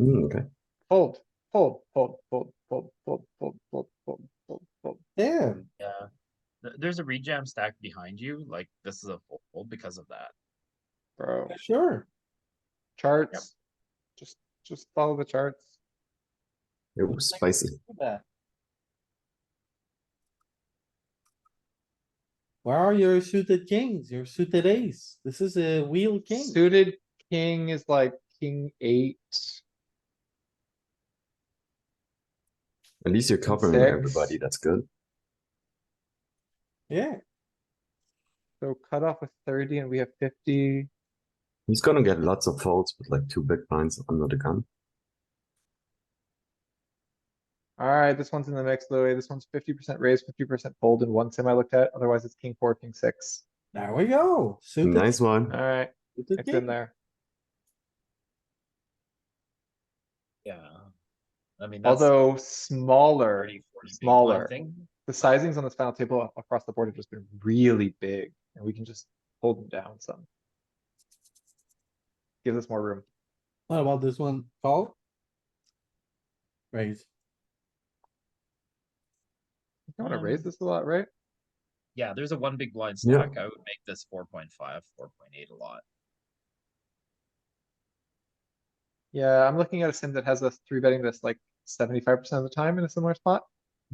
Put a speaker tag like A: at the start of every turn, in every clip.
A: Mm, okay.
B: Fold, fold, fold, fold, fold, fold, fold, fold, fold, fold, fold. Damn,
C: Yeah. Th- There's a rejam stack behind you, like this is a fold because of that.
B: bro.
A: Sure.
B: Charts. Just, just follow the charts.
A: It was spicy.
B: Yeah.
D: Where are your suited kings, your suited ace? This is a wheel king.
B: Suited king is like king eight.
A: At least you're covering
B: Six.
A: everybody. That's good.
D: Yeah,
B: So cut off with thirty and we have fifty.
A: He's gonna get lots of folds with like two big blinds under the gun.
B: Alright, this one's in the mix, Louis. This one's fifty percent raise, fifty percent fold in one sim I looked at. Otherwise, it's king four, king six.
D: there we go. Suited,
A: Nice one.
B: Alright,
D: suited
B: it's in
D: king.
B: there.
C: Yeah. I mean, that's
B: Although smaller,
C: 30, 40 big blind
B: smaller.
C: thing.
B: the sizings on this final table across the board have just been really big and we can just hold them down some. Gives us more room.
D: What about this one? Call? Raise.
B: You wanna
C: Um,
B: raise this a lot, right?
C: Yeah, there's a one big blind
A: Yeah.
C: stack. I would make this 4.5, 4.8 a lot.
B: Yeah, I'm looking at a sim that has us three betting this like seventy-five percent of the time in a similar spot.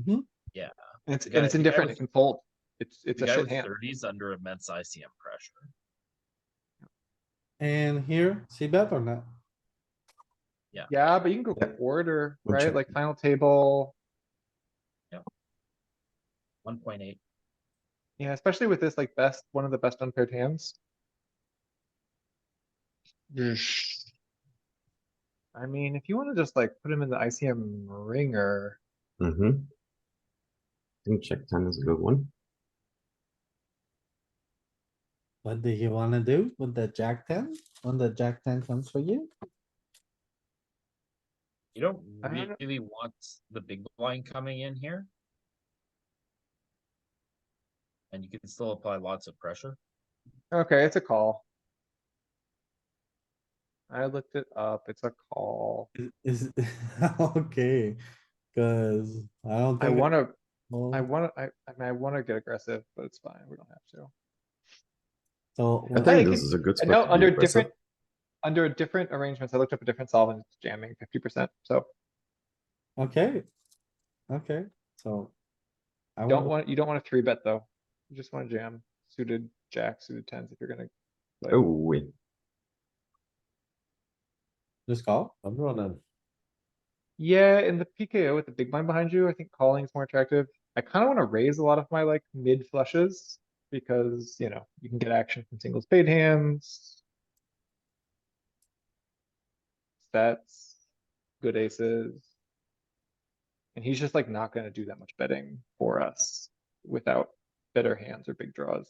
A: Mm-hmm.
D: Mhm.
C: Yeah.
B: And it's,
C: The
B: and
C: guy-
B: it's
C: the guy
B: indifferent, it
C: with-
B: can fold. It's, it's
C: The
B: a
C: guy
B: shit
C: with
B: hand.
C: 30s under immense ICM pressure.
D: And here, see bet or not?
B: Yeah, but you can go
A: Yeah.
B: quarter,
A: We'll
B: right?
A: check.
B: Like final table.
C: 1.8.
B: Yeah, especially with this like best, one of the best unpaired hands. I mean, if you wanna just like put him in the ICM ringer,
A: Mm-hmm. I think check ten is a good one.
D: What do you wanna do with the jack ten? When the jack ten comes for you?
C: You don't
B: I don't know.
C: really want the big blind coming in here. And you can still apply lots of pressure.
B: okay, it's a call. I looked it up, it's a call.
D: Is, is- okay, cuz I don't
B: I
D: think.
B: wanna, I
D: wanna.
B: wanna, I, I mean, I wanna get aggressive, but it's fine, we don't have to.
D: So,
A: I
D: when-
B: Hey,
A: think this
B: can-
A: is a good
B: I
A: spot.
B: know
A: to be
B: under
A: aggressive.
B: different, under different arrangements, I looked up a different solve and it's jamming fifty percent, so
D: okay, okay, so. I
B: don't
D: wanna-
B: want, you don't wanna three bet though. You just wanna jam suited jacks, suited tens if you're gonna
A: Oh, wait.
D: Just call?
E: I'm running.
B: Yeah, in the PKO with the big blind behind you, I think calling is more attractive. I kinda wanna raise a lot of my like mid flushes because, you know, you can get action from single spade hands. Sets, good aces. And he's just like not gonna do that much betting for us without better hands or big draws.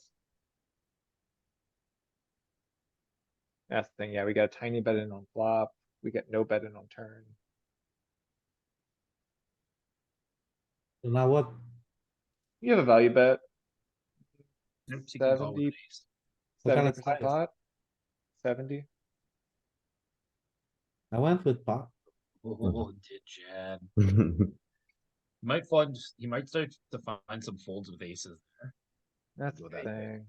B: That's the thing, yeah, we got a tiny bet in on flop, we get no bet in on turn.
D: So Now what?
B: You have a value bet,
C: Oops, you can call
B: 70.
C: with an ace.
D: What kind
B: seventy
D: of
B: percent
D: size?
B: pot. Seventy,
D: I went with pot.
C: Oh, did Chad.
A: That's
C: He might find, he might start to find some folds with aces there.
B: that's the
C: Well, that-
B: thing.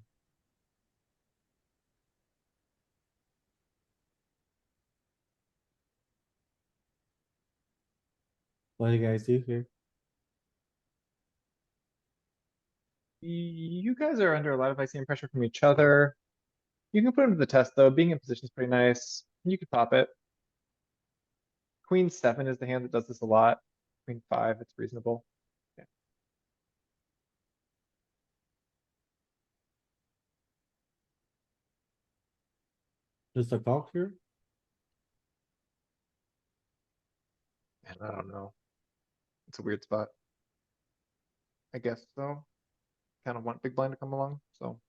D: What do you guys do here?
B: Y- You guys are under a lot of ICM pressure from each other. You can put him to the test, though. Being in position is pretty nice. You could pop it. Queen seven is the hand that does this a lot. Queen five, it's reasonable. Yeah.
D: Just a call here?
B: And I don't know. It's a weird spot. I guess so. Kind of want big blind to come along, so.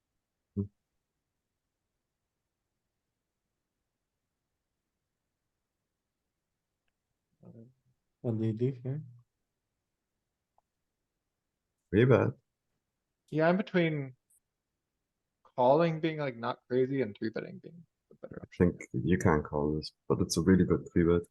B: Uh,
D: What do you do here?
A: Pretty bad.
B: Yeah, I'm between calling being like not crazy and three betting being the better
A: I think you can call this, but it's a really good three bet.